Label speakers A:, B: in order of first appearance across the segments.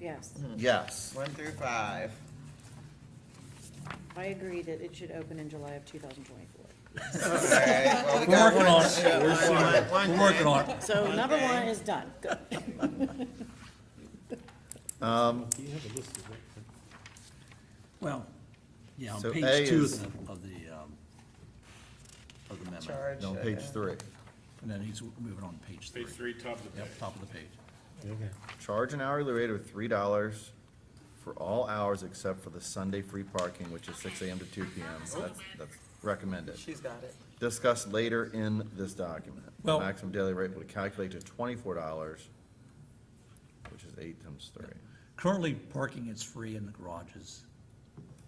A: Yes,
B: Yes.
C: One through five.
A: I agree that it should open in July of two thousand twenty-four.
C: We're
D: We're working on it. We're seeing- We're working on it.
A: So number
C: Okay.
A: one is done. Good.
E: Do you have a list of that?
D: Well, yeah, on
B: So A
D: page two
B: is-
D: of the, of the, um, of the memo.
C: Charge.
B: No,
C: uh,
B: page three.
D: And then he's moving on to page three.
F: Page three, top of the page.
D: Yep, top of the page.
E: Okay.
B: Charge an hourly rate of three dollars for all hours except for the Sunday free parking, which is six AM to two PM. That's, that's recommended.
C: She's got it.
B: Discussed later in this document.
D: Well-
B: Maximum daily rate will calculate to twenty-four dollars, which is eight times three.
D: Currently, parking is free in the garages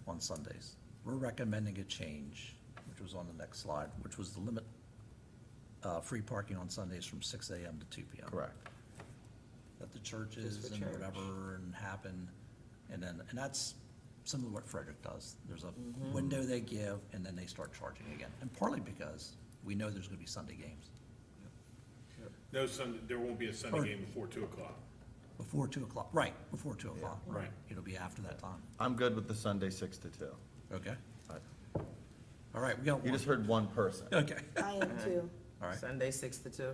D: on Sundays. We're recommending a change, which was on the next slide, which was the limit, uh, free parking on Sundays from six AM to two PM.
B: Correct.
D: That the churches
C: Just for
D: and
C: church.
D: whatever and happen, and then, and that's similar to what Frederick does. There's
C: Mm-hmm.
D: a window they give, and then they start charging again, and partly because we know there's gonna be Sunday games.
F: No Sunday, there won't be a Sunday game before two o'clock.
D: Before two o'clock, right, before two o'clock.
F: Right.
D: It'll be after that time,
B: I'm good with the Sunday six to two.
D: okay?
B: I-
D: All right, we got
B: You
D: one,
B: just heard one person.
D: okay,
A: I am too.
D: all right,
C: Sunday, six to two.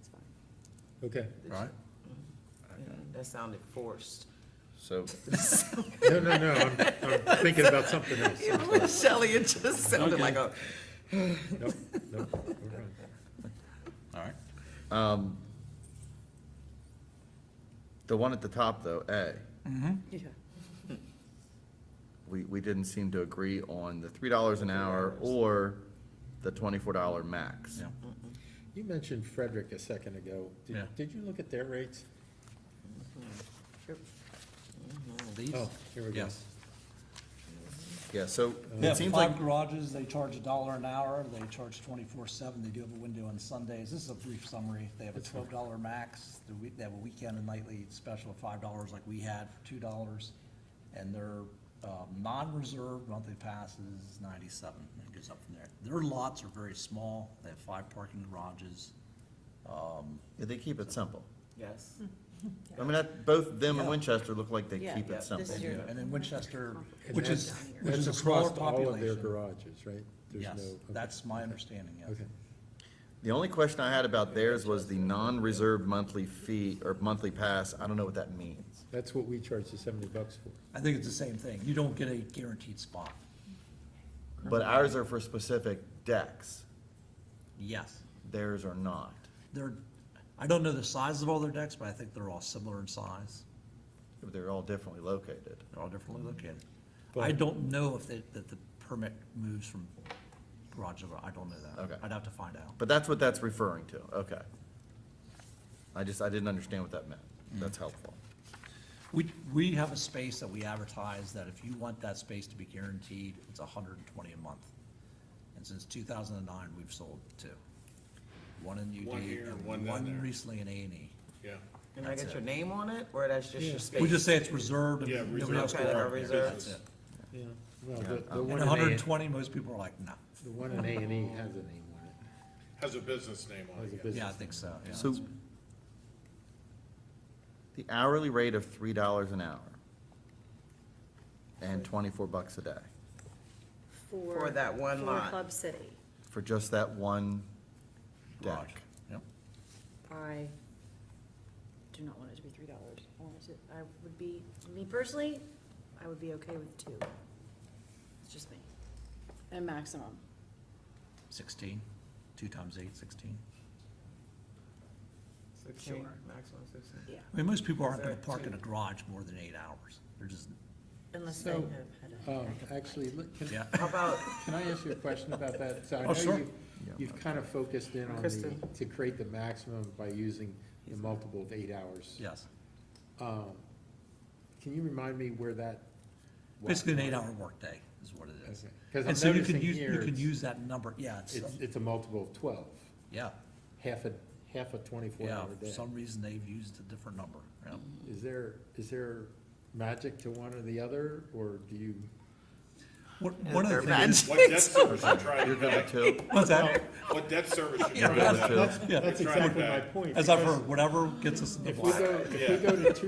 A: It's fine.
E: Okay.
D: all right.
C: Mm, That sounded forced.
B: So
E: No, no, no, I'm, I'm thinking about something else.
C: Shelley, it just sounded like a.
E: Nope, nope, we're fine.
D: All right.
B: the one at the top though, A,
A: Yeah.
B: we, we didn't seem to agree on the three dollars an hour or the twenty-four dollar max.
D: Yeah.
E: You mentioned Frederick a second ago. Did-
D: Yeah.
E: Did you look at their rates?
D: These?
E: Oh, here we go.
D: Yes.
B: Yeah, so
D: They
B: it
D: have
B: seems like,
D: five garages, they charge a dollar an hour, they charge twenty-four seven, they do have a window on Sundays, this is a brief summary. They have a twelve dollar max, The week- they have a weekend and nightly special of five dollars like we had for two dollars. And their, um, non-reserved monthly pass is ninety-seven, and it goes up from there. Their lots are very small, they have five parking garages.
B: yeah, they keep it simple.
C: Yes.
B: I mean, that, both them and
D: Yeah.
B: Winchester look like they
A: Yeah,
B: keep
A: yeah.
B: it simple.
A: This is your-
D: And then Winchester,
E: And
D: which
E: that's-
D: is, which is a smaller
E: That's across all of their
D: population.
E: garages, right? There's no-
D: Yes,
E: okay.
D: that's my understanding, yes.
E: Okay.
B: The only question I had about theirs was the non-reserved monthly fee or monthly pass. I don't know what that means.
E: That's what we charge the seventy bucks for.
D: I think it's the same thing, you don't get a guaranteed spot.
B: But ours are for specific decks.
D: Yes.
B: Theirs are not.
D: They're, I don't know the size of all their decks, but I think they're all similar in size.
B: They're all differently located.
D: They're all differently located. I
E: But-
D: don't know if that, that the permit moves from garage to garage. I don't know that.
B: Okay.
D: I'd have to find out.
B: But that's what that's referring to. Okay. I just, I didn't understand what that meant.
A: Mm.
B: That's helpful.
D: We, we have a space that we advertise that if you want that space to be guaranteed, it's hundred and twenty a month. And since two thousand and nine, we've sold two. One in UD
F: One here and one
D: and
F: down
D: one
F: there.
D: recently in A and E.
F: Yeah.
C: Can I
D: That's
C: get
D: it.
C: your name on it, or that's just your space?
D: We just say it's reserved
F: Yeah,
D: and nobody else
F: reserved.
D: can park
C: Okay,
D: there.
C: reserved.
D: That's it.
E: Yeah. Well, the, the
D: And
E: one in
D: hundred and
E: A,
D: twenty, most people are like, no.
E: the one in A and E has a name on it.
F: Has a business name on
E: Has a
F: it. yeah.
E: business
D: Yeah, I think so, yeah.
B: So the hourly rate of three dollars an hour and twenty-four bucks a day
C: For that one lot.
A: For Club City,
B: for just that one
D: Garage.
B: deck.
D: Yep.
A: I do not want it to be three dollars. I want it to, I would be, me personally, I would be okay with two. It's just me. And maximum.
D: 16, 2 times 8, 16.
C: Sixteen,
A: Sure.
C: maximum sixteen.
A: Yeah.
D: I mean, most people aren't going
C: Is
D: to
C: that
D: park in a
C: two?
D: garage more than eight hours. They're just,
A: Unless
E: they So, have Um, actually, look, can,
D: yeah.
C: How about,
E: Can I ask you a question about that? So I
D: Oh,
E: know
D: sure.
E: you- You've kind of focused in on the,
C: Kristen.
E: to create the maximum by using the multiple of eight hours.
D: Yes.
E: Um, Can you remind me where that? was?
D: Basically, an eight-hour workday is what it is.
E: Okay. 'Cause I'm
D: And so you can
E: noticing
D: use,
E: here
D: you can
E: it's-
D: use that number, yeah, it's,
E: It's, it's a multiple of twelve,
D: yeah,
E: half a, half a twenty-four
D: yeah.
E: hour
D: For
E: day.
D: some reason, they've used a different number, yeah.
E: Is there, is there magic to one or the other, or do you?
D: One one of the things, is-
F: What debt service you trying to
B: You're good with
F: back?
B: two?
D: what's that?
F: What debt service you
D: Yeah,
F: trying to back?
B: that's-
F: You're
E: That's
F: trying
E: exactly my
F: back.
E: point.
D: As I've
E: because
D: heard, whatever gets us in the
E: If we
D: black.
E: go, if we go to two